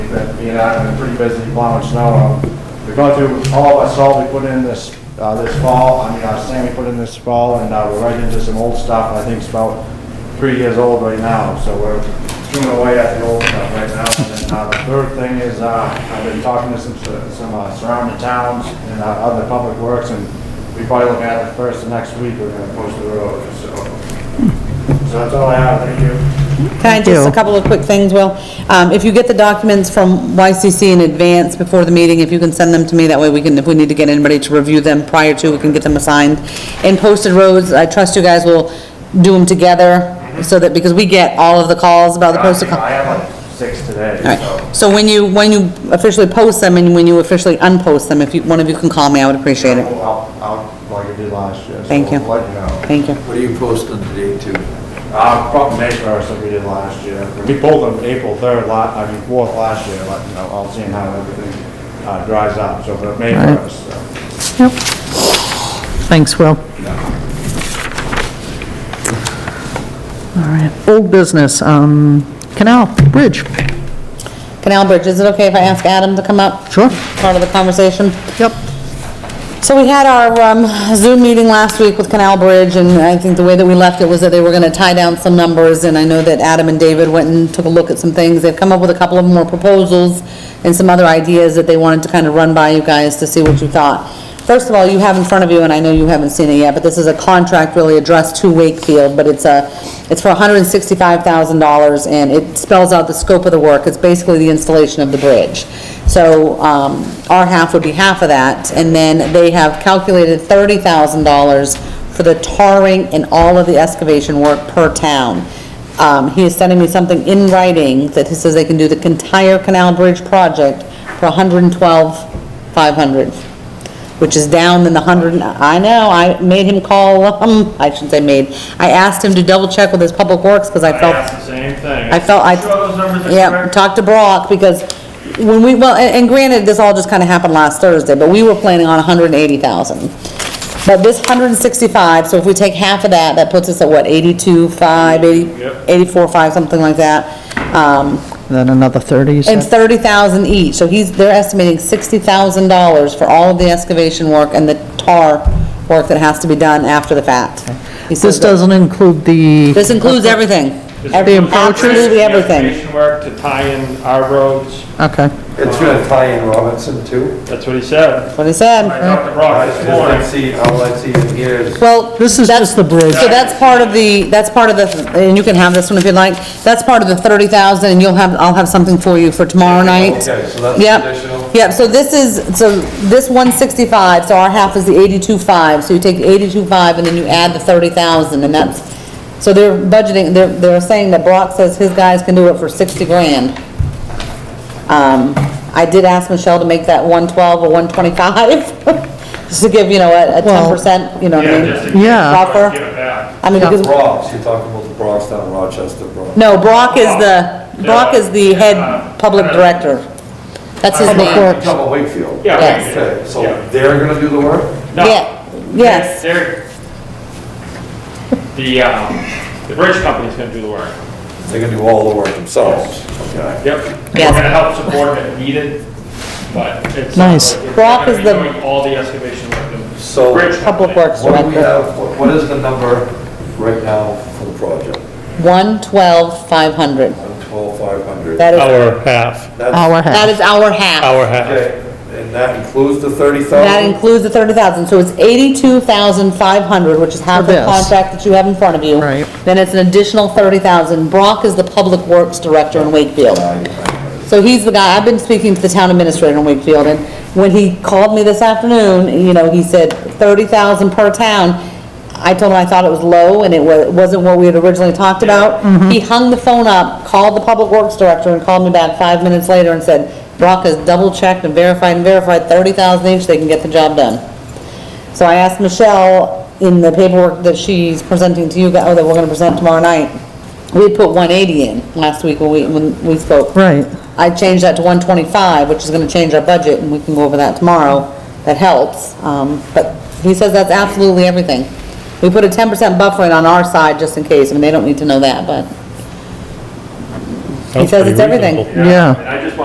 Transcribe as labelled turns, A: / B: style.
A: that being out and pretty busy plowing snow. Um, We're going through all of our salt we put in this, uh, this fall, I mean, our sand we put in this fall, and, uh, we're right into some old stuff, I think it's about three years old right now, so we're chewing away at the old stuff right now. And then, uh, the third thing is, uh, I've been talking to some, some uh, surrounding towns and, uh, other public works, and we probably look at it first, next week, we're gonna post the road, so. So that's all I have, thank you.
B: Can I just, a
C: you.
B: couple of quick things, Will? Um, If you get the documents from YCC in advance before the meeting, if you can send them to me, that way we can, if we need to get anybody to review them prior to, we can get them assigned. And posted roads, I trust you guys will do them together, so that, because we get all of the calls about the posted. co-
A: I have like six today,
B: All
A: so.
B: right, so when you, when you officially post them and when you officially unpost them, if you, one of you can call me, I would appreciate it.
A: I'll, I'll, like I did last year. so
B: Thank you.
A: we'll Let you know.
B: Thank you.
D: What do you post on today too?
A: Uh, probably May first, like we did last year. We pulled them April third, la, I mean, fourth last year, but, you know, I'll see how everything, uh, dries up, so, but May
C: Alright.
A: first, so.
C: Yep. Thanks, Will. All right, old business, um, canal, bridge,
B: Canal Bridge, is it okay if I ask Adam to come up?
C: sure,
B: Part of the conversation?
C: yep.
B: So we had our um, Zoom meeting last week with Canal Bridge, and I think the way that we left it was that they were gonna tie down some numbers, and I know that Adam and David went and took a look at some things. They've come up with a couple of more proposals and some other ideas that they wanted to kind of run by you guys to see what you thought. First of all, you have in front of you, and I know you haven't seen it yet, but this is a contract really addressed to Wakefield, but it's a, it's for hundred and sixty-five thousand dollars, and it spells out the scope of the work. It's basically the installation of the bridge. So, um, our half would be half of that, and then they have calculated thirty thousand dollars for the tarring and all of the excavation work per town. Um, he is sending me something in writing that he says they can do the entire Canal Bridge project for $112,500, which is down than the hundred, and- I know, I made him call, um, I shouldn't say made, I asked him to double check with his public works, because I
E: I
B: felt.
E: asked the same thing.
B: I felt I.
E: Sure those numbers are
B: Yeah,
E: correct?
B: talked to Brock, because when we, well, and and granted, this all just kinda happened last Thursday, but we were planning on hundred and eighty thousand. But this hundred and sixty-five, so if we take half of that, that puts us at what, eighty-two, five, eighty,
E: Yep.
B: eighty-four, five, something like that. Um,
C: Then another 30, you
B: and
C: said?
B: thirty thousand each, so he's, they're estimating sixty thousand dollars for all of the excavation work and the tar work that has to be done after the fact. He says
C: This
B: that-
C: doesn't include the,
B: This includes everything.
E: This
B: Every-
E: includes
C: approaches?
B: Absolutely
E: the
B: everything.
E: excavation work to tie in our roads,
C: okay,
F: It's gonna tie in Robinson too.
E: that's what he said.
B: That's what he said.
E: I talked to Brock this
F: All I
E: morning.
F: see, all I see in here is
B: Well.
C: This is
B: that's-
C: just the bridge.
B: So that's part of the, that's part of the, and you can have this one if you'd like, that's part of the thirty thousand, and you'll have, I'll have something for you for tomorrow night.
F: Okay, so that's
B: Yep.
F: additional?
B: Yep, so this is, so this one sixty-five, so our half is the eighty-two five, so you take eighty-two five and then you add the thirty thousand, and that's, so they're budgeting, they're, they're saying that Brock says his guys can do it for sixty grand. Um, I did ask Michelle to make that one twelve or one twenty-five, just to give, you know, a, a ten
C: Well-
B: percent, you know what I
E: Yeah,
B: mean?
E: just in case
C: Yeah.
E: Brock
B: Proper.
E: Give it back.
B: I mean,
C: Yeah.
B: because,
F: Bronx, you're talking about the Bronx, not Rochester, Bronx.
B: no, Brock is the, Brock is the head public director. That's his
F: You're
B: name.
F: talking about Wakefield?
E: Yeah,
B: Yes.
F: Okay, so
E: Yeah.
F: they're gonna do the work?
E: No.
B: Yeah, yes.
E: They're, they're- the, um, the bridge company's gonna do the work.
F: They're gonna do all the work themselves? Okay.
E: Yep.
B: Yes.
E: We're gonna help support if needed, but it's. not
C: Nice.
E: like we're
B: Brock
E: gonna
B: is
E: be
B: the-
E: doing All the excavation work. the
F: So
E: bridge
B: Public
E: company.
B: Works
F: what do we
B: Director.
F: have, what- what is the number right now for the project?
B: One twelve five hundred.
F: Twelve, five hundred?
B: That is,
G: Hour half,
C: our
B: that
C: half.
B: is our half.
G: hour half.
F: Okay, and that includes the thirty
B: That
F: thousand?
B: includes the thirty thousand, so it's eighty-two thousand five hundred, which is half
C: For
B: the
C: this.
B: contract that you have in front of you.
C: Right.
B: Then it's an additional thirty thousand. Brock is the Public Works Director in Wakefield. So he's the guy, I've been speaking to the town administrator in Wakefield, and when he called me this afternoon, you know, he said thirty thousand per town. I told him I thought it was low, and it wa- wasn't what we had originally talked about. He hung the phone up, called the Public Works Director, and called me back five minutes later and said, Brock has double-checked and verified and verified thirty thousand each, they can get the job done. So I asked Michelle in the paperwork that she's presenting to you, guys- or that we're gonna present tomorrow night, we had put one eighty in last week when we, when we spoke.
C: Right,
B: I changed that to one twenty-five, which is gonna change our budget, and we can go over that tomorrow, that helps, um, but he says that's absolutely everything. We put a ten percent buffer in on our side, just in case, I mean, they don't need to know that, but. He
G: Sounds
B: says it's
G: pretty
B: everything.
G: reasonable.
C: yeah.
E: And I just want